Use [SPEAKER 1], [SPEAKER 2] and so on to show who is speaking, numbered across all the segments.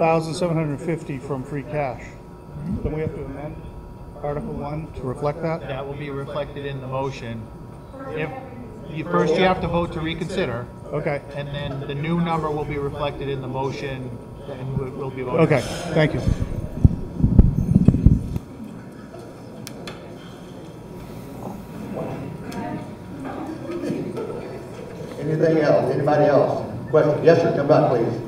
[SPEAKER 1] 104,750 from free cash. Then we have to amend Article 1 to reflect that?
[SPEAKER 2] That will be reflected in the motion. If, you, first you have to vote to reconsider,
[SPEAKER 1] Okay,
[SPEAKER 2] and then the new number will be reflected in the motion, and will will be voted.
[SPEAKER 1] okay, thank you.
[SPEAKER 3] Anything else, anybody else? Question, yes, sir, come back, please.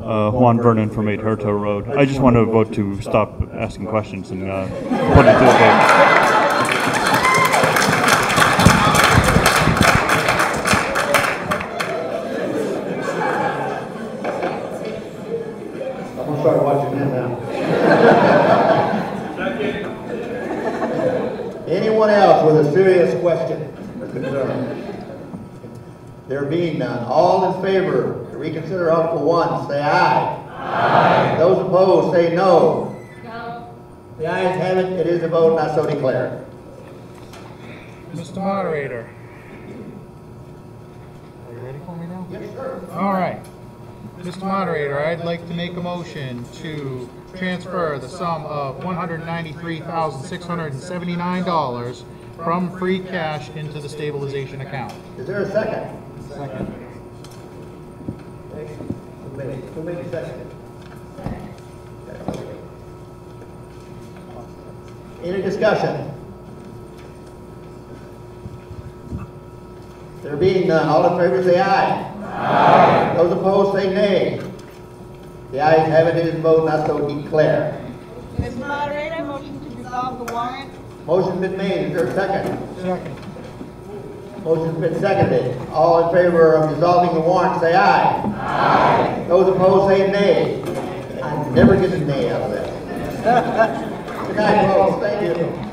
[SPEAKER 4] Uh, Juan Vernon from 8 Herto Road. I just want to vote to stop asking questions and uh, put it to a vote.
[SPEAKER 3] I'm gonna start watching him now. Anyone else with a serious question or concern? There being none, all in favor to reconsider Article One, say aye. Aye. Those opposed, say no. No. The ayes have it, it is a vote, and I so declare.
[SPEAKER 1] Mr. Moderator.
[SPEAKER 2] Are you ready for me now?
[SPEAKER 3] Yes, sir.
[SPEAKER 2] All right. Mr. Moderator, I'd like to make a motion to transfer the sum of one hundred ninety-three thousand, six hundred and seventy-nine dollars from free cash into the stabilization account.
[SPEAKER 3] Is there a second? Second. Who made, who made the second? Any discussion? There being none, all in favor say aye. Aye. Those opposed say nay. The ayes have it, it is voted, not so declare.
[SPEAKER 5] Mr. Moderator, motion to resolve the warrant.
[SPEAKER 3] Motion's been made, is there a second? Second. Motion's been seconded. All in favor of dissolving the warrant, say aye. Aye. Those opposed, say nay. I never get a nay out of that. Good night, folks, thank you.